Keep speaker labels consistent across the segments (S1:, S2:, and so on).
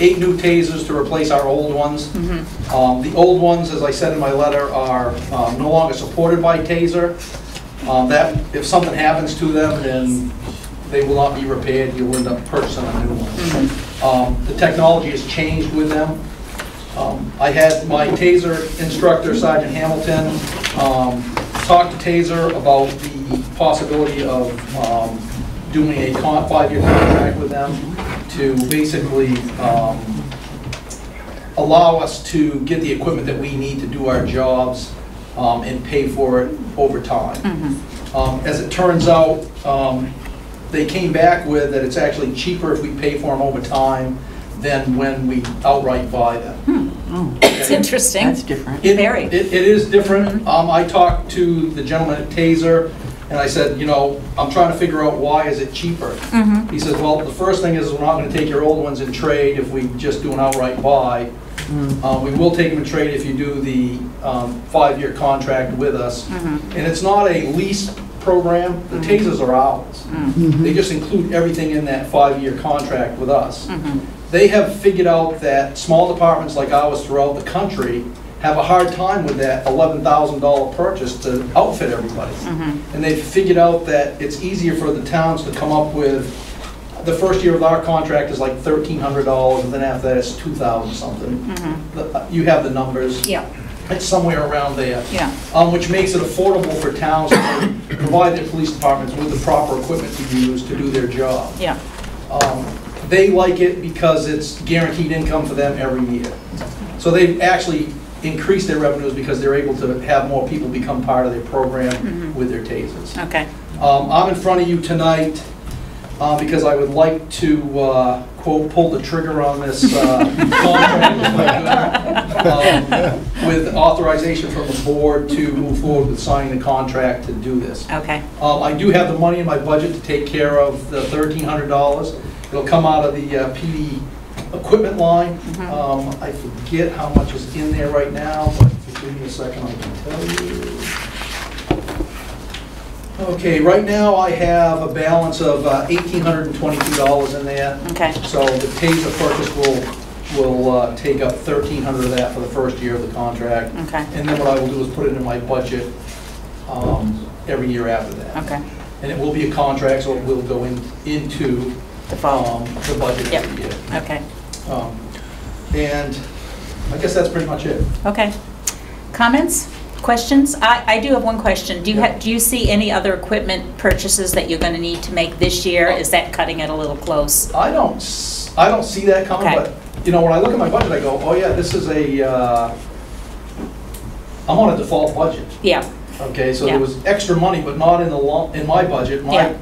S1: eight new tasers to replace our old ones. Um, The old ones, as I said in my letter, are um, no longer supported by taser. Um, That, if something happens to them, then they will not be repaired, you'll end up purchasing a new one. Um, The technology has changed with them. Um, I had my TASER instructor, Sergeant Hamilton, um, talk to TASER about the possibility of um, doing a con- five-year contract with them to basically um, allow us to get the equipment that we need to do our jobs um, and pay for it over time. Um, As it turns out, um, they came back with that it's actually cheaper if we pay for them over time than when we outright buy them.
S2: It's interesting.
S3: That's different.
S1: It-
S2: Very.
S1: It, it is different. Um, I talked to the gentleman at Taser, and I said, you know, I'm trying to figure out why is it cheaper? He says, well, the first thing is, we're not gonna take your old ones in trade if we just do an outright buy. Uh, we will take them in trade if you do the, um, five-year contract with us. And it's not a lease program, the Tasers are ours. They just include everything in that five-year contract with us.
S2: Mm-hmm.
S1: They have figured out that small departments like ours throughout the country have a hard time with that $11,000 purchase to outfit everybody.
S2: Mm-hmm.
S1: And they've figured out that it's easier for the towns to come up with, the first year of our contract is like $1,300, and then after that it's 2,000 something. The- uh, You have the numbers.
S2: Mm-hmm. Yeah,
S1: It's somewhere around there.
S2: Yeah.
S1: Um, Which makes it affordable for towns to provide their police departments with the proper equipment to use to do their job.
S2: yeah.
S1: Um, They like it because it's guaranteed income for them every year. So they've actually increased their revenues because they're able to have more people become part of their program with their tasers.
S2: Okay.
S1: Um, I'm in front of you tonight uh, because I would like to, uh, quote, pull the trigger on this uh, contract if I could, um, with authorization from the board to move forward with signing the contract to do this.
S2: Okay.
S1: Um, I do have the money in my budget to take care of the $1,300. It'll come out of the uh, PD equipment line.
S2: Mm-hmm.
S1: Um, I forget how much is in there right now, but if you give me a second, I can tell you. Okay, right now I have a balance of uh, $1,822 in there.
S2: Okay.
S1: So the TASER purchase will, will uh, take up 1,300 of that for the first year of the contract.
S2: Okay.
S1: And then what I will do is put it in my budget um, every year after that.
S2: Okay.
S1: And it will be a contract, so it will go in, into
S2: The fall.
S1: um, the budget every year.
S2: Okay.
S1: Um, And I guess that's pretty much it.
S2: Okay. Comments? Questions? I, I do have one question. Do you
S1: Yeah.
S2: have, do you see any other equipment purchases that you're going to need to make this year?
S1: Oh.
S2: Is that cutting it a little close?
S1: I don't, s- I don't see that coming,
S2: Okay.
S1: but, you know, when I look at my budget, I go, oh yeah, this is a, uh, I'm on a default budget,
S2: Yeah,
S1: okay? So
S2: Yeah.
S1: there was extra money, but not in the, lo- in my budget.
S2: Yeah.
S1: Mine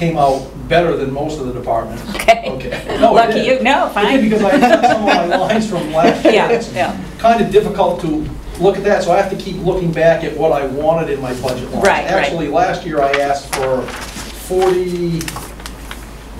S1: came out better than most of the departments.
S2: okay.
S1: Okay. No, it
S2: Lucky
S1: did.
S2: you, no,
S1: It did
S2: fine.
S1: Because I had some of my lines from last year.
S2: Yeah,
S1: It's
S2: yeah.
S1: Kind of difficult to look at that, so I have to keep looking back at what I wanted in my budget line.
S2: Right, right.
S1: Actually, last year I asked for 40,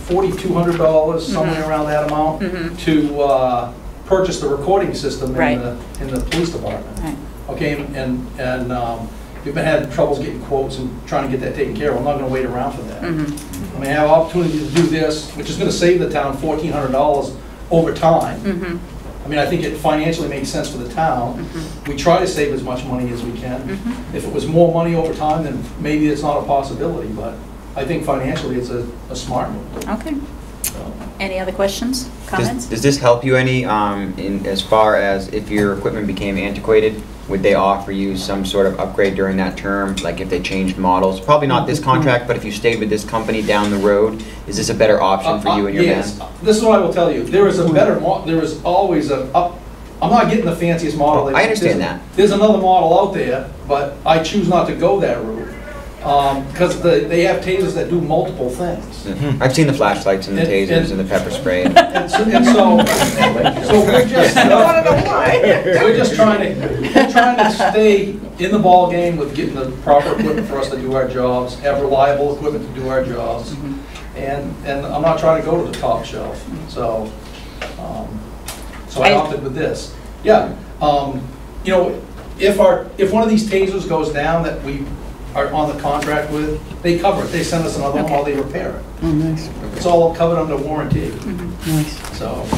S1: $4,200,
S2: Mm-hmm.
S1: somewhere around that amount, to uh, purchase the recording system
S2: Right.
S1: in the, in the police department.
S2: Right.
S1: Okay, and, and um, we've been having troubles getting quotes and trying to get that taken care of. I'm not gonna wait around for
S2: Mm-hmm.
S1: that. I mean, I have opportunity to do this, which is gonna save the town fourteen hundred dollars over time.
S2: Mhm.
S1: I mean, I think it financially makes sense for the town. We try to save as much money as we can. If it was more money over time, then maybe it's not a possibility, but I think financially, it's a, a smart move.
S2: Okay.
S1: so.
S2: Any other questions,
S4: Does-
S2: comments?
S4: Does this help you any, um, in, as far as if your equipment became antiquated? Would they offer you some sort of upgrade during that term, like if they changed models? Probably not this
S1: Mm-hmm.
S4: contract, but if you stayed with this company down the road, is this a better option for you and your
S1: Uh, uh,
S4: band?
S1: Yes, this is what I will tell you, there is a better, mo- there is always a, up- I'm not getting the fanciest model.
S4: Oh, I understand that.
S1: There's another model out there, but I choose not to go that route, because they have tasers that do multiple things.
S4: I've seen the flashlights and the
S1: And-
S4: tasers
S1: and-
S4: and the pepper spray. and-
S1: And so, and so so we're just, we're just trying to, we're trying to stay in the ballgame with getting the proper equipment for us to do our jobs, have reliable equipment to do our jobs. And, and I'm not trying to go to the top shelf, so, um, so I
S2: I-
S1: opted with this. Yeah, um, you know, if our, if one of these tasers goes down that we are on the contract with, they cover it, they send us another one while they repair it.
S3: Oh, nice,
S1: It's all covered under warranty,
S3: nice.
S1: so.